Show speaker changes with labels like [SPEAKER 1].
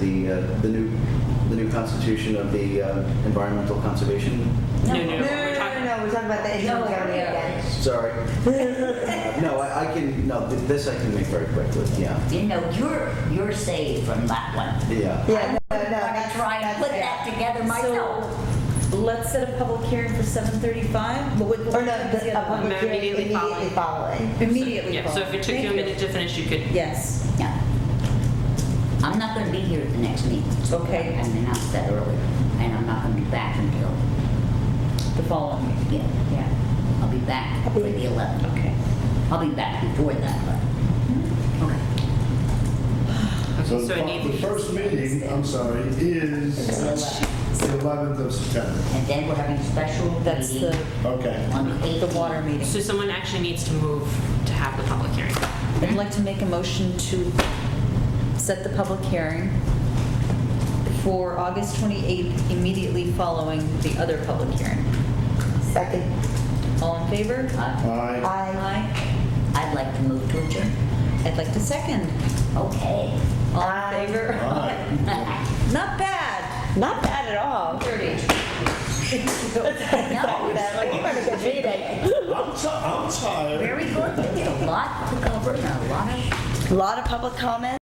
[SPEAKER 1] the, uh, the new, the new constitution of the uh, Environmental Conservation,
[SPEAKER 2] No,
[SPEAKER 3] No, no,
[SPEAKER 2] no,
[SPEAKER 3] no, we're
[SPEAKER 2] no,
[SPEAKER 3] talking-
[SPEAKER 2] no, we're talking about the
[SPEAKER 3] No,
[SPEAKER 2] interim zoning
[SPEAKER 3] yeah.
[SPEAKER 2] again.
[SPEAKER 1] sorry. Uh, No, I I can, no, th- this I can make very quickly, yeah,
[SPEAKER 4] You know, you're, you're saved from that one.
[SPEAKER 1] yeah.
[SPEAKER 2] Yeah, no, no,
[SPEAKER 4] I'm
[SPEAKER 2] that's.
[SPEAKER 4] trying to
[SPEAKER 2] that's
[SPEAKER 4] put
[SPEAKER 2] it.
[SPEAKER 4] that together myself.
[SPEAKER 5] So let's set a public hearing for 7:35? But what- what
[SPEAKER 2] Or no,
[SPEAKER 5] time is the uh,
[SPEAKER 2] the, a
[SPEAKER 5] other one?
[SPEAKER 2] public hearing
[SPEAKER 3] Immediately
[SPEAKER 2] immediately
[SPEAKER 3] following.
[SPEAKER 2] following.
[SPEAKER 5] Immediately
[SPEAKER 3] Yeah, so if it took
[SPEAKER 5] following.
[SPEAKER 3] you a
[SPEAKER 5] Thank
[SPEAKER 3] minute to finish, you could,
[SPEAKER 5] Yes.
[SPEAKER 4] Yeah. I'm not gonna be here at the next meeting.
[SPEAKER 5] Okay.
[SPEAKER 4] I mean, I said earlier, and I'm not gonna be back until the following meeting. Yeah, yeah. I'll be back for the 11th.
[SPEAKER 5] Okay.
[SPEAKER 4] I'll be back before that, but. Okay.
[SPEAKER 3] okay, so
[SPEAKER 6] the
[SPEAKER 3] I
[SPEAKER 6] fir- The
[SPEAKER 3] need,
[SPEAKER 6] first meeting, I'm sorry, is
[SPEAKER 4] It's the 11th.
[SPEAKER 6] the 11th of September.
[SPEAKER 4] And then we're having a special
[SPEAKER 5] That's
[SPEAKER 4] meeting
[SPEAKER 5] the,
[SPEAKER 6] Okay.
[SPEAKER 4] on the 18th.
[SPEAKER 5] the water meeting.
[SPEAKER 3] so someone actually needs to move to have the public hearing.
[SPEAKER 5] I'd like to make a motion to set the public hearing for August 28th, immediately following the other public hearing.
[SPEAKER 2] Second,
[SPEAKER 5] All in favor?
[SPEAKER 4] Uh,
[SPEAKER 6] Aye.
[SPEAKER 2] aye.
[SPEAKER 5] Aye.
[SPEAKER 4] I'd like to move to adjourn.
[SPEAKER 5] I'd like to second.
[SPEAKER 4] Okay.
[SPEAKER 5] All in favor?
[SPEAKER 6] Aye.
[SPEAKER 5] Not bad. Not bad at all. Dirty.
[SPEAKER 4] No,
[SPEAKER 6] I'm ti- I'm tired.
[SPEAKER 4] very good. There's a lot to cover and a lot of
[SPEAKER 5] A Lot of public comment.